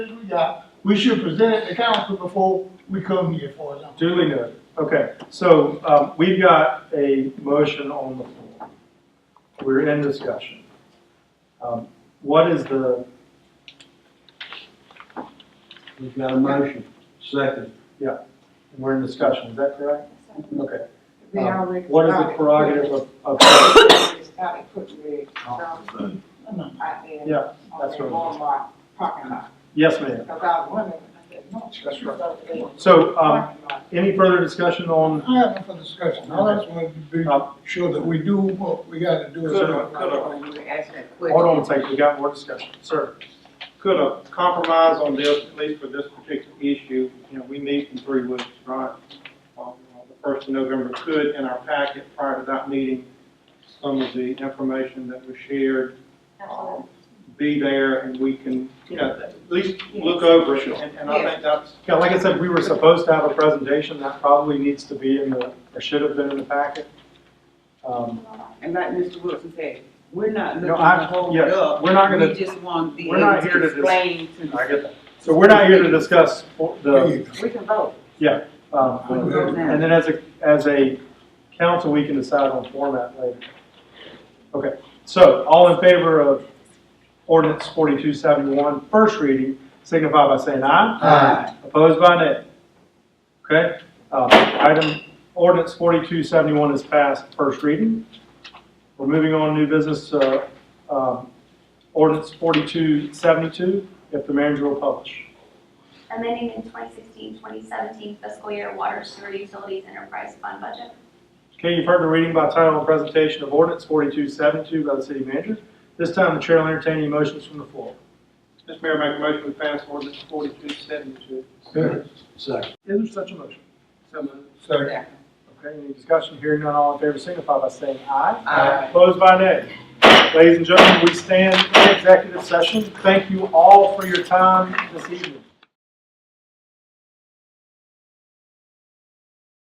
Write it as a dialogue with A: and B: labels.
A: we got, we should present it to council before we come here for it.
B: Duly noted. Okay, so um, we've got a motion on the floor. We're in discussion. Um, What is the,
C: We've got a motion, second.
B: we're in discussion, is that correct? Okay.
D: They
B: Um,
D: already-
B: What is the prerogative of, of,
D: It's got to put the, um, out there.
B: Yeah, that's
D: On the Walmart parking lot,
B: yes, ma'am.
D: because I was wondering, I said, no.
B: That's right.
D: so they-
B: So um,
D: parking lot.
B: any further discussion on,
A: I have nothing for discussion, I just wanted to be
B: uh,
A: sure that we do what we gotta do.
B: Could I- could I-
D: When you were asking that question.
B: hold on a second, we got more discussion, sir.
E: could a compromise on this, at least for this particular issue, you know, we meet in three weeks, right? Uh, The first of November could, in our packet prior to that meeting, some of the information that was shared, um, be there and we can, you know, at least look over it. And, and I think that's,
B: Yeah, like I said, we were supposed to have a presentation, that probably needs to be in the, or should have been in the packet. Um,
F: And like Mr. Wilson said, we're not looking
B: No,
F: to
B: I,
F: hold it
B: yes,
F: up.
B: we're not gonna,
F: We just want the
B: we're not
F: able
B: here to
F: to
B: dis-
F: explain to the.
B: I get that. So we're not here to discuss the,
F: We can vote.
B: Um, And then as a, as a council, we can decide on format later. Okay, so all in favor of ordinance 4271, first reading, signify by saying aye.
C: Aye.
B: Opposed by nay. Okay, uh, item, ordinance 4271 is passed, first reading. We're moving on to new business, uh, um, ordinance 4272, if the manager will publish.
G: amending the 2016-2017 fiscal year water sewer utilities enterprise fund budget.
B: Okay, you've heard the reading by title and presentation of ordinance 4272 by the city manager. This time, the chair will entertain any motions from the floor.
E: Mr. Mayor, make a motion to pass ordinance forty-two seventy-two.
C: Second.
B: Is there such a motion?
E: So moved.
A: Second.
B: Okay, any discussion? Hearing none, all in favor signify by saying aye.
F: Aye.
B: Opposed by nay. Ladies and gentlemen, we stand in executive session. Thank you all for your time this evening.